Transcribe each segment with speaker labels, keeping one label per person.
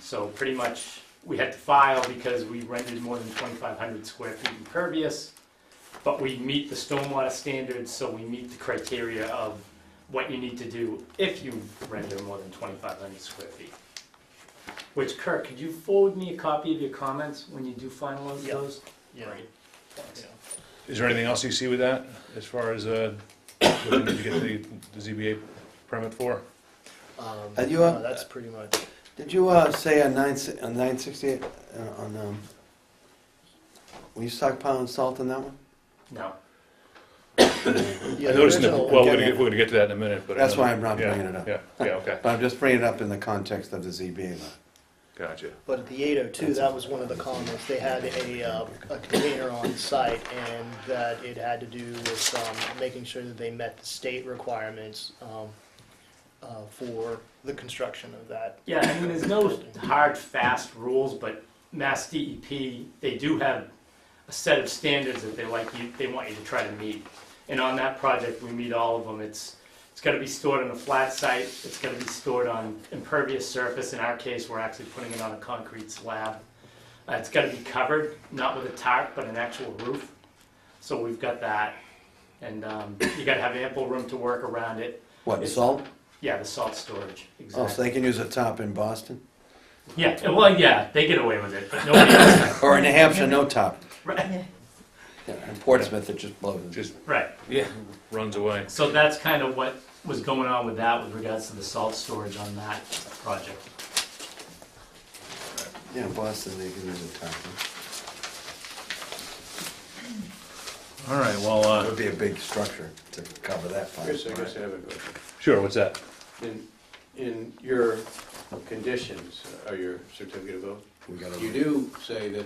Speaker 1: So pretty much, we had to file because we rented more than twenty-five hundred square feet impervious, but we meet the stormwater standards, so we meet the criteria of what you need to do if you render more than twenty-five hundred square feet. Which Kirk, could you forward me a copy of your comments when you do finalize
Speaker 2: Yeah.
Speaker 1: those?
Speaker 2: Yeah.
Speaker 1: Great. Thanks.
Speaker 2: Yeah.
Speaker 3: Is there anything else you see with that, as far as, uh, what you need to get the, the ZBA permit for?
Speaker 2: Um,
Speaker 4: Are you
Speaker 2: no,
Speaker 4: up?
Speaker 2: That's pretty much,
Speaker 4: Did you uh, say on nine si- on nine sixty eight uh, on um? Were you stockpiling salt on that one?
Speaker 1: No,
Speaker 2: yeah,
Speaker 3: I
Speaker 2: the
Speaker 3: noticed, in the-
Speaker 2: original-
Speaker 3: well, we're gonna, get- we're gonna get to that in a minute, but. I
Speaker 4: That's
Speaker 3: know-
Speaker 4: why I'm not
Speaker 3: yeah,
Speaker 4: bringing it up.
Speaker 3: Yeah, yeah, okay,
Speaker 4: But I'm just bringing it up in the context of the ZBA. law.
Speaker 3: gotcha.
Speaker 2: But at the 802, that was one of the comments, they had a, uh, a container on site, and that it had to do with, um, making sure that they met the state requirements, um, uh, for the construction of that.
Speaker 1: yeah, I mean, there's no hard, fast rules, but Mass DEP, they do have a set of standards that they like you, they want you to try to meet. And on that project, we meet all of them. It's, it's gotta be stored on a flat site, it's gotta be stored on impervious surface. In our case, we're actually putting it on a concrete slab. Uh, it's gotta be covered, not with a tarp, but an actual roof. So we've got that. And, um, you gotta have ample room to work around it.
Speaker 4: What
Speaker 1: It's-
Speaker 4: salt?
Speaker 1: Yeah, the salt storage,
Speaker 4: Oh, so
Speaker 1: exactly.
Speaker 4: they can use a top in Boston
Speaker 1: Yeah, well, yeah, they get away with it, but nobody else does.
Speaker 4: or in New Hampshire, no top.
Speaker 1: Right,
Speaker 4: Yeah, in Portsmouth, it just blows.
Speaker 3: Just
Speaker 1: right.
Speaker 3: runs away.
Speaker 1: So that's kind of what was going on with that with regards to the salt storage on that project.
Speaker 4: yeah, in Boston, they can use a top. Huh?
Speaker 3: All right, well,
Speaker 4: It
Speaker 3: uh,
Speaker 4: would be a big structure to cover that
Speaker 5: I
Speaker 4: part.
Speaker 5: guess, I guess I have a question.
Speaker 3: sure, what's that?
Speaker 5: In, in your conditions, or your certificate of vote,
Speaker 4: We gotta-
Speaker 5: you do say that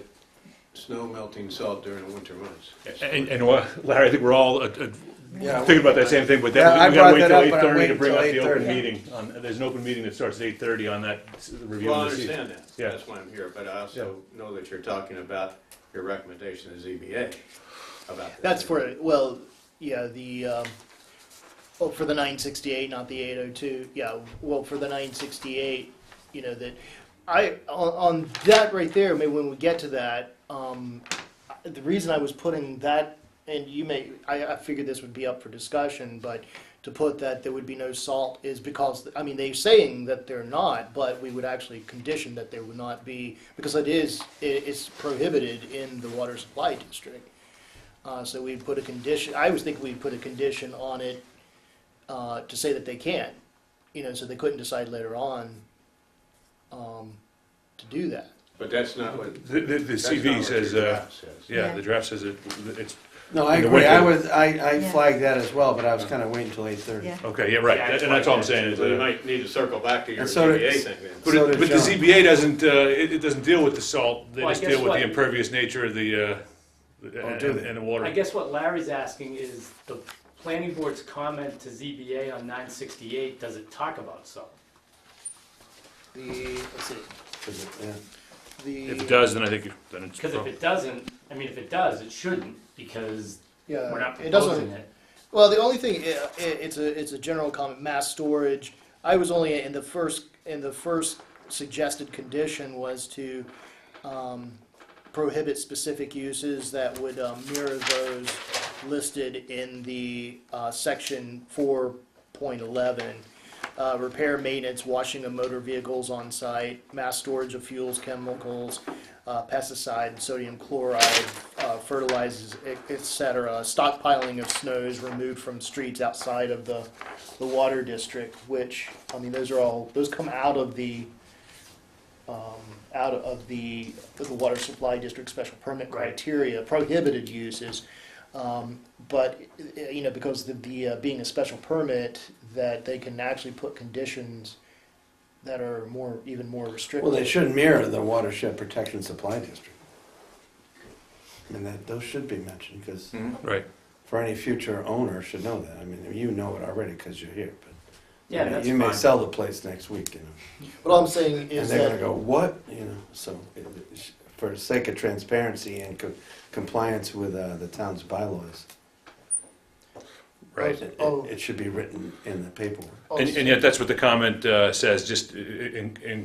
Speaker 5: snow melting salt during the winter months.
Speaker 3: And, and what, Larry, I think we're all, uh, uh,
Speaker 4: Yeah,
Speaker 3: thinking about that same thing, but
Speaker 4: Yeah, I
Speaker 3: then we
Speaker 4: brought
Speaker 3: gotta wait
Speaker 4: that
Speaker 3: till
Speaker 4: up,
Speaker 3: eight
Speaker 4: but I'm
Speaker 3: thirty to
Speaker 4: waiting
Speaker 3: bring
Speaker 4: till
Speaker 3: up the open
Speaker 4: 8:30.
Speaker 3: meeting. On, there's an open meeting that starts at eight thirty on that s- review.
Speaker 5: Well, I
Speaker 3: of the C-
Speaker 5: understand that,
Speaker 3: Yeah.
Speaker 5: that's why I'm here, but I also know that you're talking about your recommendation to ZBA about this.
Speaker 2: That's for, well, yeah, the, um, oh, for the 968, not the 802, yeah, well, for the 968, you know, that, I, on, on that right there, maybe when we get to that, um, I- the reason I was putting that, and you may, I, I figured this would be up for discussion, but to put that there would be no salt is because, I mean, they're saying that they're not, but we would actually condition that there would not be, because it is, it, it's prohibited in the water supply district. Uh, so we put a condition, I was thinking we'd put a condition on it, uh, to say that they can, you know, so they couldn't decide later on, um, to do that.
Speaker 5: But that's not what.
Speaker 3: The, the, the
Speaker 5: that's not
Speaker 3: CV
Speaker 5: what
Speaker 3: says,
Speaker 5: your
Speaker 3: uh,
Speaker 5: draft says.
Speaker 3: yeah,
Speaker 6: Yeah.
Speaker 3: the draft says it, it's,
Speaker 4: No, I
Speaker 3: In the
Speaker 4: agree. I
Speaker 3: winter.
Speaker 4: was I, I
Speaker 6: Yeah.
Speaker 4: flagged that as well, but I was kind of waiting until eight thirty.
Speaker 6: Yeah.
Speaker 3: okay, yeah, right,
Speaker 1: Yeah,
Speaker 3: and
Speaker 1: it's
Speaker 3: and that's all I'm
Speaker 1: like-
Speaker 3: saying is.
Speaker 5: So you
Speaker 3: uh,
Speaker 5: might need to circle back to your
Speaker 4: And so
Speaker 5: ZBA
Speaker 4: did-
Speaker 5: thing then.
Speaker 3: But,
Speaker 4: So
Speaker 3: it,
Speaker 4: did
Speaker 3: but the
Speaker 4: John.
Speaker 3: ZBA doesn't, uh, it, it doesn't deal with the salt, they
Speaker 1: Well, I
Speaker 3: just
Speaker 1: guess
Speaker 3: deal with
Speaker 1: what-
Speaker 3: the impervious nature of the, uh, and,
Speaker 4: do they?
Speaker 3: and the water.
Speaker 1: I guess what Larry's asking is the planning board's comment to ZBA on nine sixty-eight, does it talk about salt?
Speaker 2: The, let's see,
Speaker 4: Yeah.
Speaker 2: the.
Speaker 3: If it does, then I think, it- then it's.
Speaker 1: Because if it doesn't, I mean, if it does, it shouldn't, because
Speaker 2: Yeah,
Speaker 1: we're not
Speaker 2: Uh, it
Speaker 1: proposing
Speaker 2: doesn't,
Speaker 1: it.
Speaker 2: well, the only thing, i- i- it's a, it's a general comment, mass storage. I was only in the first, in the first suggested condition was to, um, prohibit specific uses that would um, mirror those listed in the, uh, section four point eleven. Uh, repair, maintenance, washing of motor vehicles on site, mass storage of fuels, chemicals, uh, pesticide, sodium chloride, uh, fertilizers, e- et cetera. Stockpiling of snows removed from streets outside of the, the water district, which, I mean, those are all, those come out of the, um, out of the, of the water supply district special permit
Speaker 1: Right.
Speaker 2: criteria, prohibited uses. Um, But, eh, you know, because the, the, uh, being a special permit, that they can actually put conditions that are more, even more restrictive.
Speaker 4: Well, they should mirror the watershed protection supply district. I mean, that, those should be mentioned, because
Speaker 3: Right,
Speaker 4: for any future owner should know that. I mean, you know it already because you're here, but.
Speaker 1: Yeah,
Speaker 4: you know,
Speaker 1: that's
Speaker 4: You may
Speaker 1: fine.
Speaker 4: sell the place next week, you know,
Speaker 2: But all I'm saying
Speaker 4: and
Speaker 2: is
Speaker 4: they're gonna
Speaker 2: that,
Speaker 4: go, what, you know, so, it- it- for the sake of transparency and co- compliance with, uh, the town's bylaws.
Speaker 3: right.
Speaker 4: It, it-
Speaker 2: Oh.
Speaker 4: it should be written in the paperwork.
Speaker 2: oh,
Speaker 3: And, and yet that's what the comment, uh, says, just i- i- in, in